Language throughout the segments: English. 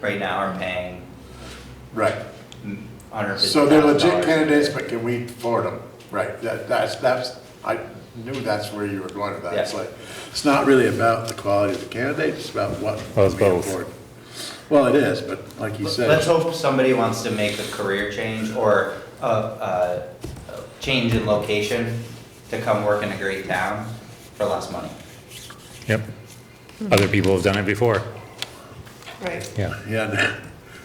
right now are paying Right. $150,000. So they're legit candidates, but can we afford them? Right, that, that's, that's, I knew that's where you were going with that. It's Yeah. like, it's not really about the quality of the candidate, it's about what Well, it's we both. afford. Well, it is, but like you Let's said, hope somebody wants to make a career change or a, a a change in location to come work in a great town for less money. Yep. Other people have done it before. Right. Yeah. yeah,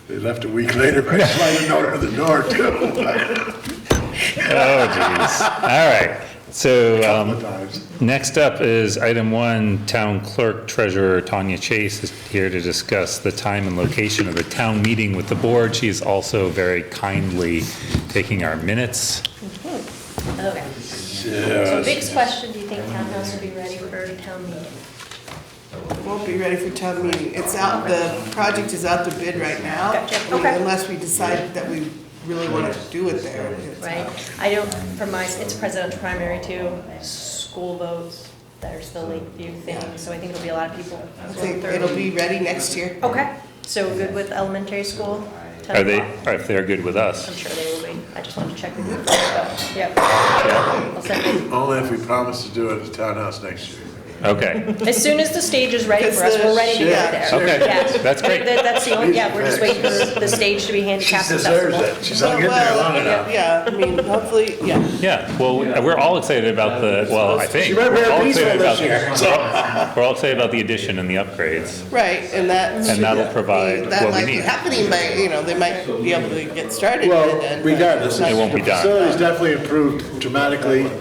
they left a week later, but sliding note at the door too. Oh, jeez. All right. So, um, Sometimes. next up is item one, Town Clerk Treasurer Tanya Chase is here to discuss the time and location of the town meeting with the board. She is also very kindly taking our minutes. Okay. So Yes. Vic's question, do you think townhouse will be ready for town meeting? Won't be ready for town meeting. It's out, the project is out to bid right now. Gotcha. Okay. Unless we decide that we really want to do it there. it's Right? out. I don't, for my, it's presidential primary too, school votes that are still Lakeview thing, so I think it'll be a lot of people. I think it'll be ready next year. Okay, so good with elementary school? 10 Are they, o'clock? are if they're good with I'm us? sure they will be. I just wanted to check with you. first, so, Yep. I'll send it. Only if we promise to do it at the townhouse next year. Okay. As soon as the stage is ready for us, we're ready to go there. Sure. Okay, Yeah. that's great. That- That's the only, yeah, we're just waiting for the stage to be handicapped accessible. She's Well, Yeah, I mean, hopefully, yeah. Yeah, well, we- we're all excited about the, well, I think. She might wear a we're all peaceful excited this about- year, We're all excited about the addition and the upgrades. Right, and that. And that'll provide That what we might be need. happening, but, you know, they might be able to get started. by then, Well, but regardless. It won't be the done. Facility's definitely improved dramatically.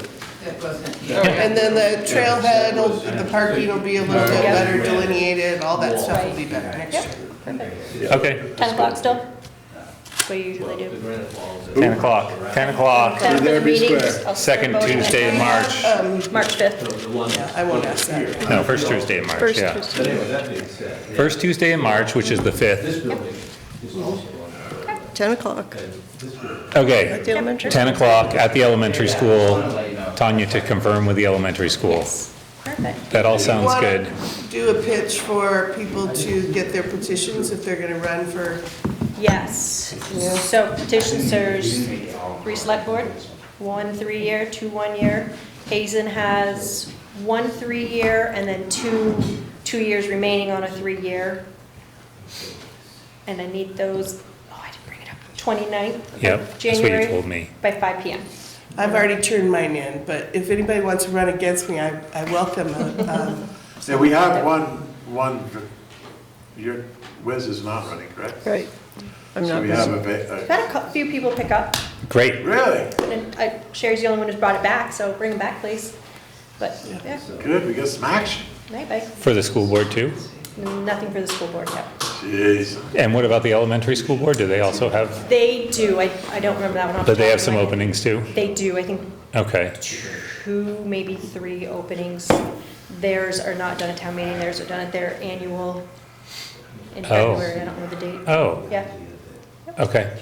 And then the trailhead, will- the parking will be a little bit better delineated, all that stuff will be better next year. Okay, Ten o'clock still? What you usually do? 10 o'clock, 10 o'clock, Ten there o'clock be meetings, square. I'll start second voting Tuesday in at March. March fifth, Yeah, I won't ask that. No, first Tuesday in March, first yeah. Tuesday. But anyway, that being said, First Tuesday in March, which is the 5th. this building is also on, 10 o'clock. this building Okay, The elementary 10 o'clock at the elementary school. Tanya to confirm with the elementary school. Perfect. That all sounds wanna good. Do a pitch for people to get their petitions if they're gonna run for, Yes, so petition serves three select board, one three-year, two one-year. Hazen has one three-year and then two, two years remaining on a three-year. And I need those, oh, I didn't bring it up, 29th Yep, of that's what you January told me. by five PM. I've already turned mine in, but if anybody wants to run against me, I, I welcome a, um, Yeah, we have one, one, your, Wiz is not running, correct? Right. I'm So not we have busy. a, va- Had a cou- few people pick up, a- Great, really? and uh, Sherry's the only one who's brought it back, so bring it back, please. But, yeah, Good, we got some action. maybe, for the school board too? nothing for the school board, yet. Jeez. And what about the elementary school board? Do they also have, They do, I, I don't remember that one off the do they top have of some my head. openings too? They do, I think Okay, two, maybe three openings. Theirs are not done at town meeting, theirs are done at their annual in Oh. February, I don't know the date. oh, Yeah, okay.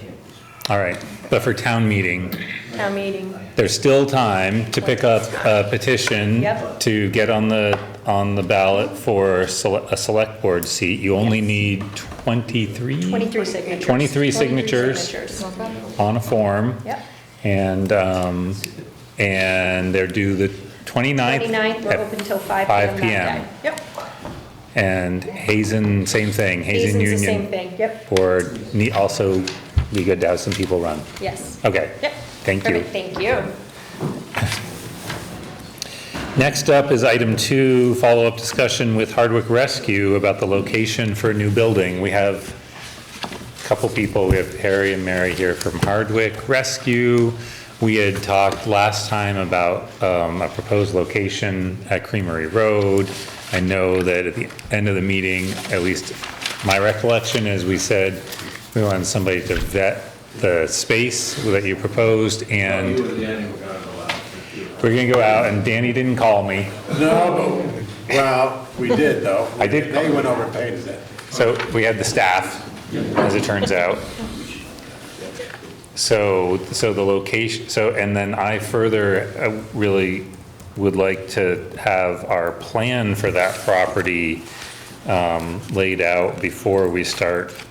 All right, but for town meeting, town meeting, There's still time to pick up a petition Yep. to get on the, on the ballot for sele- a select board seat. You only need 23 twenty-three signatures. 23 signatures. on a form. Yep. And, um, and they're due the 29th. Twenty-ninth, we're at- open till five 5 PM PM. that day. Yep. And Hazen, same thing, Hazen Union. Hazen's the same thing, yep, Board, ne- also be good to have some people run. yes. Okay. Yep. Oh. Thank you. Perfect, thank you. Next up is item two, follow-up discussion with Hardwick Rescue about the location for a new building. We have a couple people, we have Harry and Mary here from Hardwick Rescue. We had talked last time about um, a proposed location at Creamery Road. I know that at the end of the meeting, at least my recollection is we said we wanted somebody to vet the space that you proposed and You and Danny were gonna go out. we're gonna go out and Danny didn't call me. No, but, well, we did though. I did- They went over and painted it. So we had the staff, as it turns out. So, so the location, so, and then I further uh, really would like to have our plan for that property um, laid out before we start